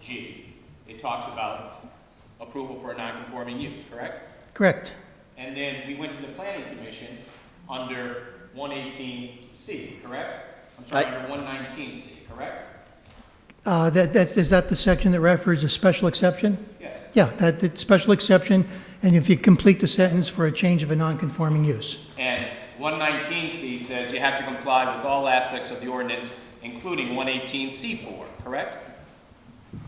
G, it talks about approval for a non-conforming use, correct? Correct. And then we went to the planning commission under one eighteen C, correct? I'm sorry, I- under one nineteen C, correct? Uh, That, that's, is that the section that refers to special exception? Yes, Yeah, that, that special exception, and if you complete the sentence for a change of a non-conforming use. and one nineteen C says you have to comply with all aspects of the ordinance, including one eighteen C four, correct?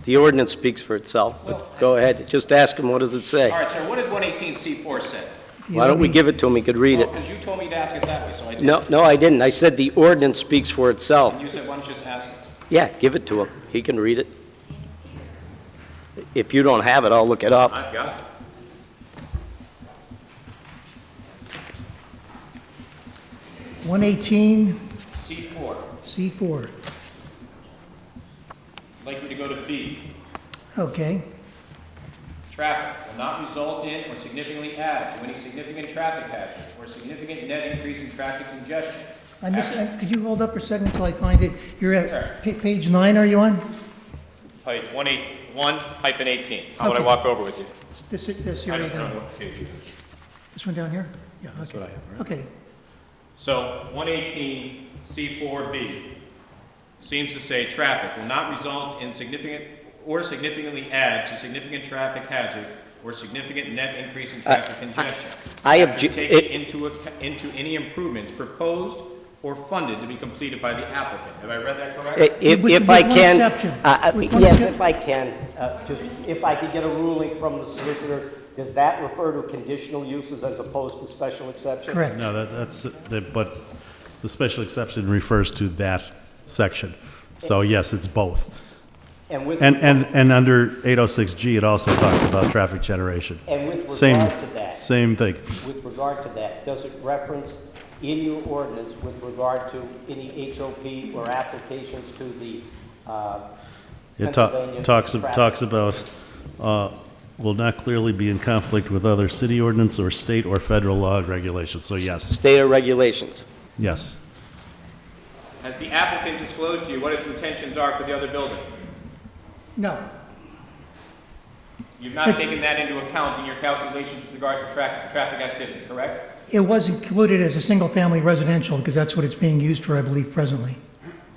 The ordinance speaks for itself, but go ahead, just ask him, what does it say? All right, sir, what does one eighteen C four say? You Why don't we need- give it to him, he could read it. Because you told me to ask it that way, so I did. No, no, I didn't, I said the ordinance speaks for itself. You said, why don't you just ask us? Yeah, give it to him, he can read it. If you don't have it, I'll look it up. I've got it. C four, 118C4, I'd like you to go to B, okay. Traffic will not result in or significantly add to any significant traffic hazard or significant net increase in traffic congestion. I missed, I- could you hold up for a second until I find it? You're at, pa- page nine are you on? Page one eight, one hyphen eighteen. How would I Okay. walk over with you? This, this here, right now. what page it is. this one down here? Yeah, okay. Okay, So one eighteen C four B seems to say traffic will not result in significant or significantly add to significant traffic hazard or significant net increase in traffic congestion. I After obje- taking it- into, ac- into any improvements proposed or funded to be completed by the applicant. Have I read that correctly? If, With- if with I one can, exception. uh, uh, With one yes, excep- if I can, uh, just, if I could get a ruling from the solicitor, does that refer to conditional uses as opposed to special exception? correct. No, that, that's, that, but the special exception refers to that section. So yes, it's both. And with, And, and, and under 806G, it also talks about traffic generation. and with Same, regard to that, same thing. with regard to that, does it reference in your ordinance with regard to any HOP or applications to the, uh, It ta- Pennsylvania talks, of- traffic- talks about, uh, will not clearly be in conflict with other city ordinance or state or federal law and regulations. So yes, State or regulations. yes. Has the applicant disclosed to you what its intentions are for the other building? No, You've not taken that into account in your calculations with regards to traffic, traffic activity, correct? it was included as a single-family residential, because that's what it's being used for, I believe, presently.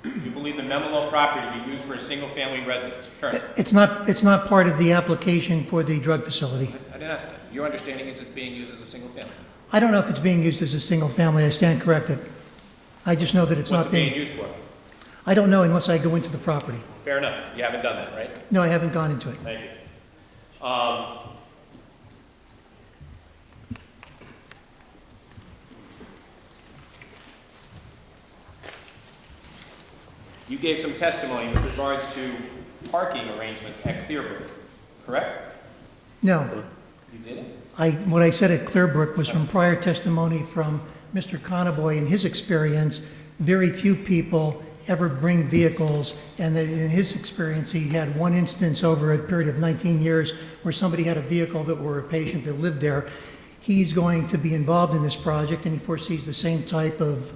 You believe the Memelo property to be used for a single-family residence, correct? It's not, it's not part of the application for the drug facility. I didn't ask that. Your understanding is it's being used as a single family. I don't know if it's being used as a single family, I stand corrected. I just know that it's What's not it being being, used for? I don't know unless I go into the property. Fair enough. You haven't done that, right? No, I haven't gone into it. Thank you. Um, You gave some testimony with regards to parking arrangements at Clearbrook, correct? No, You didn't? I, what I said at Clearbrook was from prior testimony from Mr. Conboy and his experience, very few people ever bring vehicles, and that in his experience, he had one instance over a period of 19 years where somebody had a vehicle that were a patient that lived there. He's going to be involved in this project, and he foresees the same type of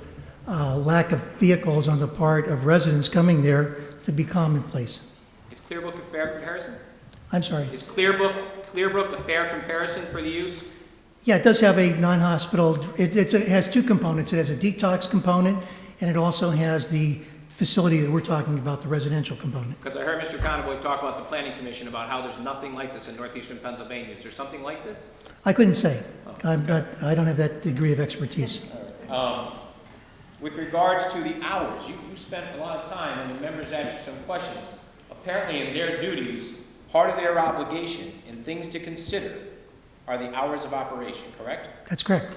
uh, lack of vehicles on the part of residents coming there to be commonplace. Is Clearbrook a fair comparison? I'm sorry. Is Clearbrook, Clearbrook a fair comparison for the use? Yeah, it does have a non-hospital, it, it's, it has two components. It has a detox component, and it also has the facility that we're talking about, the residential component. Because I heard Mr. Conboy talk about the planning commission about how there's nothing like this in northeastern Pennsylvania. Is there something like this? I couldn't say. I'm not, I don't have that degree of expertise. With regards to the hours, you, you spent a lot of time, and the members asked you some questions. Apparently, in their duties, part of their obligation and things to consider are the hours of operation, correct? That's correct.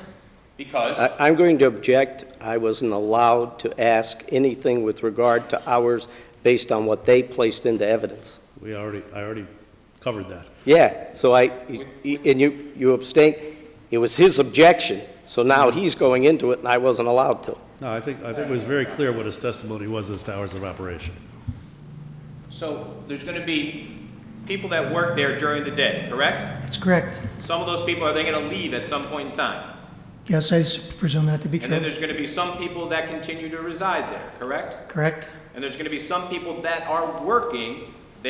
Because, I- I'm going to object. I wasn't allowed to ask anything with regard to hours based on what they placed into evidence. We already, I already covered that. Yeah, so I, and you, you abstained. It was his objection, so now he's going into it, and I wasn't allowed to. No, I think, I think it was very clear what his testimony was as to hours of operation. so, there's gonna be people that work there during the day, correct? That's correct. Some of those people, are they gonna leave at some point in time? Yes, I s- presume that to be And then true. there's gonna be some people that continue to reside there, correct? Correct? And there's gonna be some people that are working